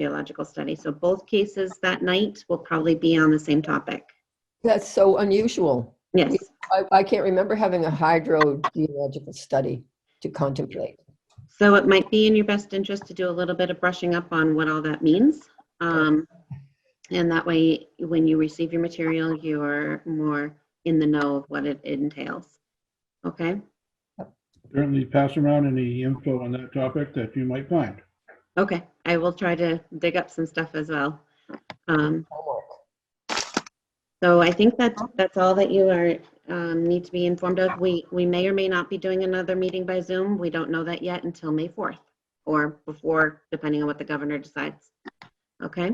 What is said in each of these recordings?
geological study. So both cases that night will probably be on the same topic. That's so unusual. Yes, I, I can't remember having a hydrogeological study to contemplate. so it might be in your best interest to do a little bit of brushing up on what all that means. Um, And that way, when you receive your material, you're more in the know of what it entails. Okay, Certainly pass around any info on that topic that you might find. okay, I will try to dig up some stuff as well. Um, Homework. So I think that, that's all that you are, um, need to be informed of. We, we may or may not be doing another meeting by Zoom. We don't know that yet until May 4th or before, depending on what the governor decides. Okay?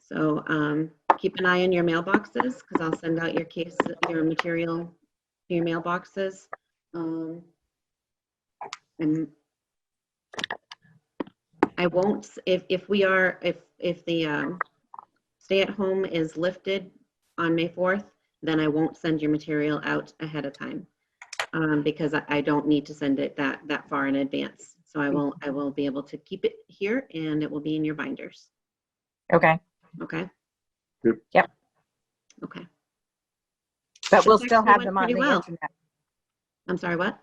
So, um, keep an eye on your mailboxes because I'll send out your case, your material to your mailboxes. Um, And I won't, if, if we are, if, if the, um, stay at home is lifted on May 4th, then I won't send your material out ahead of time. um, Because I, I don't need to send it that, that far in advance. So I will, I will be able to keep it here and it will be in your binders. Okay, Okay? Yep. Yep. Okay. but we'll Should still actually have went them on the pretty well. internet. I'm sorry, what?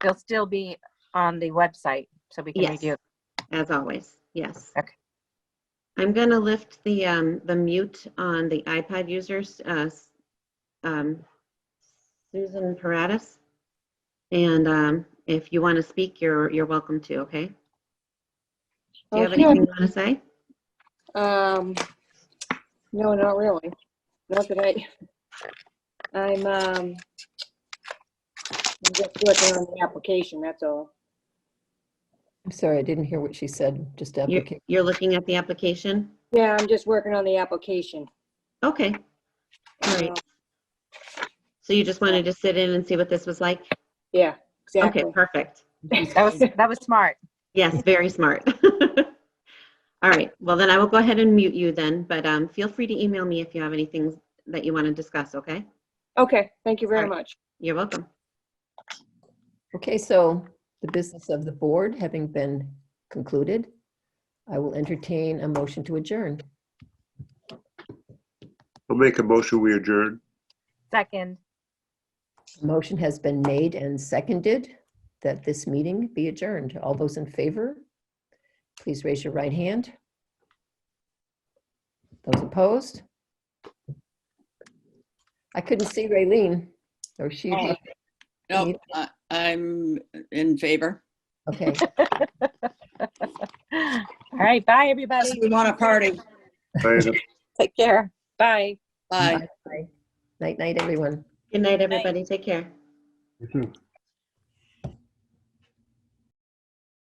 They'll still be on the website, so we can Yes. review. As always, yes. Okay. I'm gonna lift the, um, the mute on the iPad users, uh, s- um, Susan Paratus. And, um, if you want to speak, you're, you're welcome to, okay? Do you have Okay. anything you want to say? Um, no, not really. Not that I, I'm, um, I'm just working on the application, that's all. I'm sorry, I didn't hear what she said, just You're, applicate. you're looking at the application? Yeah, I'm just working on the application. Okay, all right. So you just wanted to sit in and see what this was like? Yeah, Okay, exactly. perfect. That was, that was smart. Yes, very smart. All right, well then I will go ahead and mute you then, but um, feel free to email me if you have anything that you want to discuss, okay? Okay, thank you very Alright. much. You're welcome. Okay, so the business of the board having been concluded, I will entertain a motion to adjourn. I'll make a motion, we adjourn. Second, A Motion has been made and seconded that this meeting be adjourned. All those in favor, please raise your right hand. Those opposed? I couldn't see Raylene. Oh, she, Oh, You- Nope, I- I'm in favor. okay. all right, bye, everybody. Yes, we want a party. Diana? Take care. Bye. Bye. Bye. Night, night, everyone. Good night, everybody. Take care. You too.